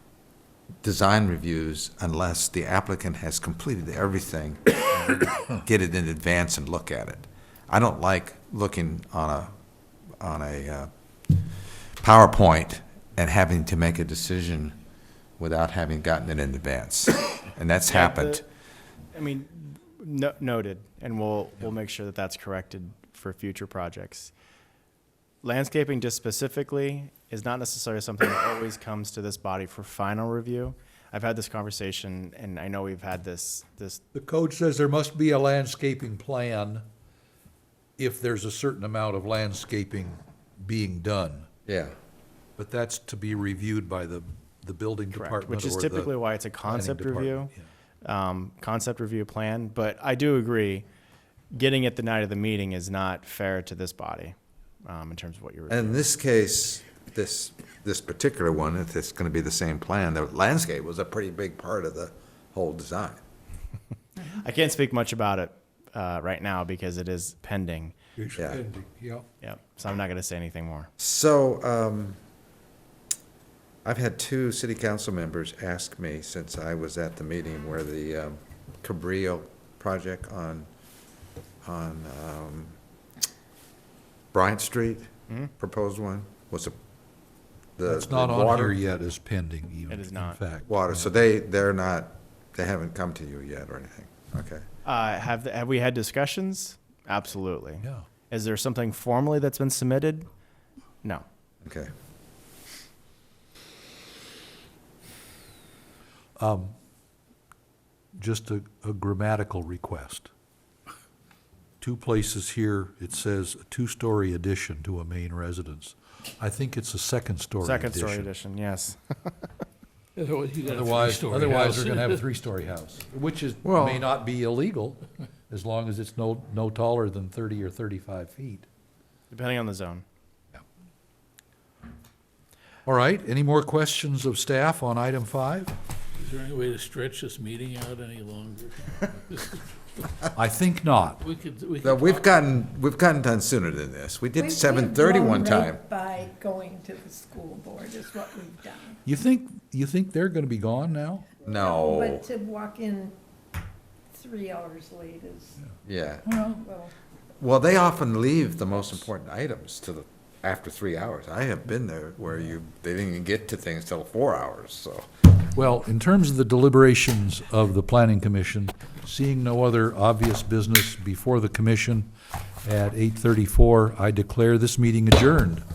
design reviews unless the applicant has completed everything, get it in advance and look at it. I don't like looking on a, on a uh, PowerPoint and having to make a decision without having gotten it in advance. And that's happened. I mean, no, noted, and we'll, we'll make sure that that's corrected for future projects. Landscaping just specifically is not necessarily something that always comes to this body for final review. I've had this conversation, and I know we've had this, this, The code says there must be a landscaping plan if there's a certain amount of landscaping being done. Yeah. But that's to be reviewed by the, the building correct, department which is or the typically why it's a planning concept review. department, yeah. um, concept review plan, but I do agree, getting it the night of the meeting is not fair to this body um, in terms of what you're. And in this case, this, this particular one, if it's gonna be the same plan, the landscape was a pretty big part of the whole design. I can't speak much about it uh, right now because it is pending. It's Yeah. pending, yeah. Yep. So I'm not going to say anything more. So, um, I've had two city council members ask me since I was at the meeting where the, um, Cabrillo project on, on, um, Bryant Street, proposed one, was a, the It's Hmm? not the on water- here yet as pending even, It is in not. fact. Water, so they, they're not, they haven't come to you yet or anything, okay? Uh, have have we had discussions? Absolutely. Yeah. Is there something formally that's been submitted? No. Okay. just a, a grammatical request. Two places here, it says a two-story addition to a main residence. I think it's a second-story addition. Second story edition. Yes. Otherwise, you got a Otherwise, three-story otherwise house. they're gonna have a three-story house, which is, Well- may not be illegal, as long as it's no, no taller than thirty or thirty-five feet. Depending on the zone. All right, any more questions of staff on item five? Is there any way to stretch this meeting out any longer? I think not. We could, we Now, could we've gotten, we've gotten done sooner than this. We did We've- seven thirty we've one grown right time. By going to the school board is what we've done. You think, you think they're gonna be gone now? No, But to walk in three hours late is, yeah. well, Well, they often leave the most important items to the, after three hours. I have been there where you, they didn't even get to things till four hours, so. Well, in terms of the deliberations of the planning commission, seeing no other obvious business before the commission at eight thirty-four, I declare this meeting adjourned.